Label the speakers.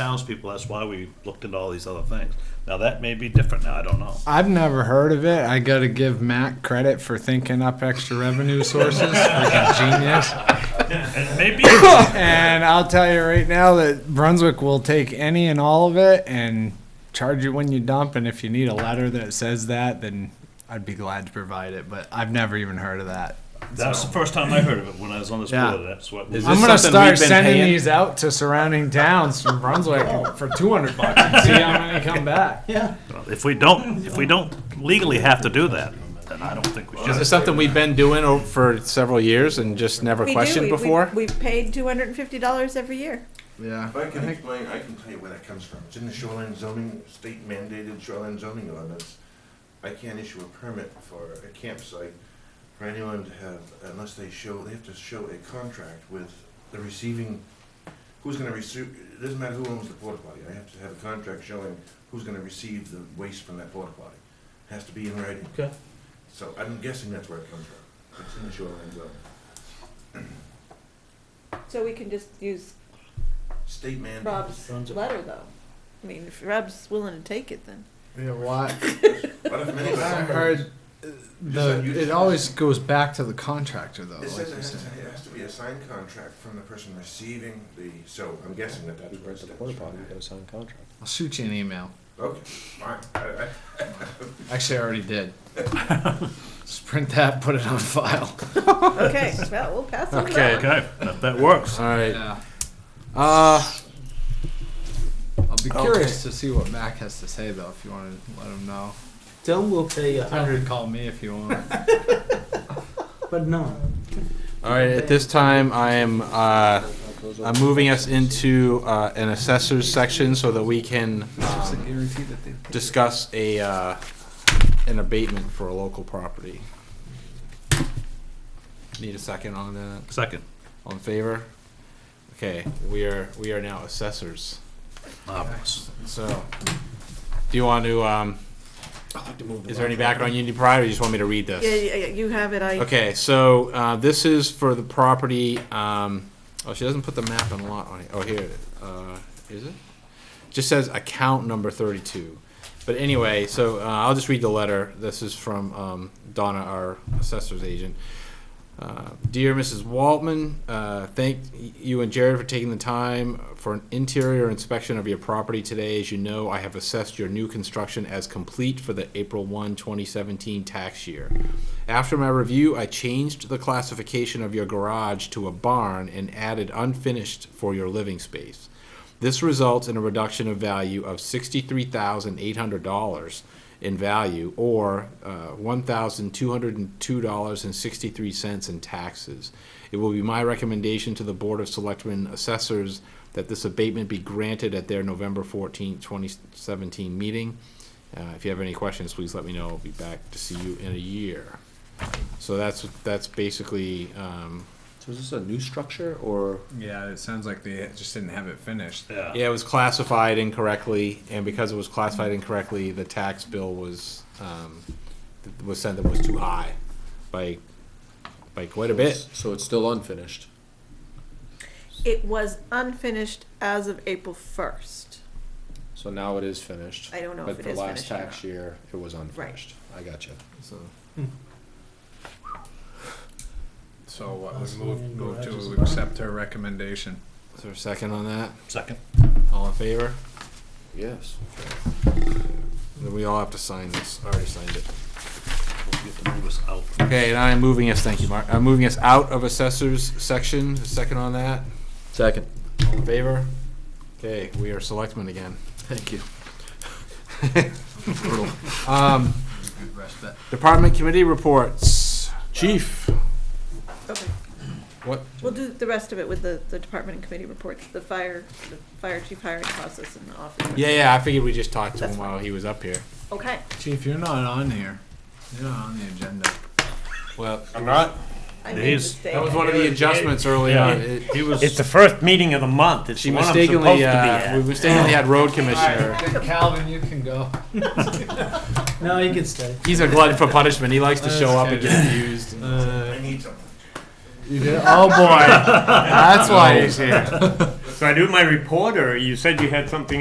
Speaker 1: townspeople, that's why we looked into all these other things. Now, that may be different now, I don't know.
Speaker 2: I've never heard of it. I got to give Matt credit for thinking up extra revenue sources. Freaking genius.
Speaker 1: And maybe,
Speaker 2: And I'll tell you right now that Brunswick will take any and all of it and charge you when you dump. And if you need a letter that says that, then I'd be glad to provide it. But I've never even heard of that.
Speaker 1: that's the first time I heard of it, when I was on this
Speaker 2: Yeah.
Speaker 1: board, that's what.
Speaker 3: Is
Speaker 2: I'm
Speaker 3: this
Speaker 2: gonna
Speaker 3: something
Speaker 2: start
Speaker 3: we've been
Speaker 2: sending
Speaker 3: paying?
Speaker 2: these out to surrounding towns from Brunswick for 200 bucks and see how many come back.
Speaker 1: If we don't, if we don't legally have to do that, then I don't think we
Speaker 3: Is this
Speaker 1: should.
Speaker 3: something we've been doing o- for several years and just never
Speaker 4: We do.
Speaker 3: questioned
Speaker 4: We- we-
Speaker 3: before?
Speaker 4: We've paid two hundred and fifty dollars every year.
Speaker 2: Yeah.
Speaker 5: If I can explain, I can tell you where that comes from. It's in the shoreline zoning, state mandated shoreline zoning ordinance. I can't issue a permit for a campsite for anyone to have, unless they show, they have to show a contract with the receiving, who's gonna receive, it doesn't matter who owns the porta potty, I have to have a contract showing who's gonna receive the waste from that porta potty. Has to be in writing.
Speaker 3: Okay.
Speaker 5: So I'm guessing that's where it comes from. It's in the shoreline zone.
Speaker 4: So we can just use
Speaker 5: State mandated.
Speaker 4: Rob's letter, though. I mean, if Rob's willing to take it, then.
Speaker 2: Yeah, why?
Speaker 5: What if many-
Speaker 2: I heard uh, the, it always goes back to the contractor though.
Speaker 5: It
Speaker 2: like
Speaker 5: says it
Speaker 2: you
Speaker 5: has,
Speaker 2: said.
Speaker 5: to- it has to be a signed contract from the person receiving the, so I'm guessing that that's where it stems from.
Speaker 2: I'll shoot you an email.
Speaker 5: Okay, fine, I, I,
Speaker 2: Actually, I already did. Just print that, put it on file.
Speaker 4: Okay, well, we'll pass on
Speaker 3: Okay.
Speaker 4: that.
Speaker 1: Okay, that, that works.
Speaker 3: All right.
Speaker 2: Yeah.
Speaker 3: Uh,
Speaker 2: I'll be curious to see what Mac has to say though, if you want to let him know.
Speaker 6: Tell will pay a
Speaker 2: You
Speaker 6: hundred,
Speaker 2: can call me if you want.
Speaker 6: but no.
Speaker 3: all right. At this time, I am uh, I'm moving us into uh, an assessors section so that we can um,
Speaker 2: guarantee that they.
Speaker 3: discuss a uh, an abatement for a local property. Need a second on that?
Speaker 1: Second,
Speaker 3: All in favor? Okay, we are we are now assessors.
Speaker 1: marvelous.
Speaker 3: So, do you want to? Um, is there any background you need prior? Or you just want me to read this?
Speaker 4: Yeah, yeah, yeah, you have it, I,
Speaker 3: Okay, so uh, this is for the property. Um, oh, she doesn't put the map and lot on it. Oh, here it is. Uh, is it? Just says account number 32. But anyway, so uh, I'll just read the letter. This is from um, Donna, our assessor's agent. Uh, Dear Mrs. Waltman, uh, thank you and Jared for taking the time for an interior inspection of your property today. As you know, I have assessed your new construction as complete for the April 1, 2017 tax year. After my review, I changed the classification of your garage to a barn and added unfinished for your living space. This results in a reduction of value of sixty-three thousand eight hundred dollars in value, or uh, one thousand two hundred and two dollars and sixty-three cents in taxes. It will be my recommendation to the Board of Selectmen Assessors that this abatement be granted at their November fourteenth, twenty seventeen meeting. Uh, if you have any questions, please let me know. I'll be back to see you in a year. So that's that's basically um,
Speaker 7: So is this a new structure or?
Speaker 2: Yeah, it sounds like they just didn't have it finished.
Speaker 1: Yeah.
Speaker 3: Yeah, it was classified incorrectly, and because it was classified incorrectly, the tax bill was, um, was sent that was too high by, by quite a bit.
Speaker 7: So it's still unfinished.
Speaker 4: it was unfinished as of April first.
Speaker 7: So now it is finished.
Speaker 4: I don't know if
Speaker 7: But
Speaker 4: it
Speaker 7: the
Speaker 4: is
Speaker 7: last
Speaker 4: finished or not.
Speaker 7: tax year, it was unfinished. I got you.
Speaker 2: So. So what, we
Speaker 6: Last
Speaker 2: move,
Speaker 6: million
Speaker 2: move
Speaker 6: garages
Speaker 2: to
Speaker 6: left.
Speaker 2: accept her recommendation.
Speaker 3: Is there a second on that?
Speaker 1: Second.
Speaker 3: All in favor?
Speaker 7: Yes.
Speaker 3: Then we all have to sign this. I already signed it.
Speaker 1: We'll get the numbers out.
Speaker 3: Okay, and I am moving us, thank you, Mark, I'm moving us out of assessors section. A second on that?
Speaker 7: Second.
Speaker 3: All in favor? Okay, we are selectmen again.
Speaker 7: Thank you.
Speaker 3: Um, department committee reports. Chief,
Speaker 4: Okay,
Speaker 3: what,
Speaker 4: we'll do the rest of it with the, the department and committee reports, the fire, the fire chief hiring process and the office.
Speaker 3: Yeah, yeah, I figured we just talked to
Speaker 4: That's
Speaker 3: him while he was up here.
Speaker 4: Okay,
Speaker 2: Chief, you're not on here. You're not on the agenda.
Speaker 3: Well, I'm not.
Speaker 4: I made a
Speaker 1: He's-
Speaker 4: mistake.
Speaker 3: That was one of the adjustments early
Speaker 1: Yeah.
Speaker 3: on. It-
Speaker 1: He was,
Speaker 6: It's the first meeting of the month. It's
Speaker 3: She
Speaker 6: the one I'm supposed to be
Speaker 3: mistakenly, uh, we
Speaker 6: at.
Speaker 3: mistakenly had road commissioner.
Speaker 2: Calvin, you can go.
Speaker 6: No, you can stay.
Speaker 3: He's a glutton for punishment. He likes to show up and
Speaker 2: That's
Speaker 3: get abused.
Speaker 5: uh, I need something.
Speaker 2: You did? Oh boy. That's why he's here.
Speaker 5: Let's
Speaker 8: So I do my report, or you said you had something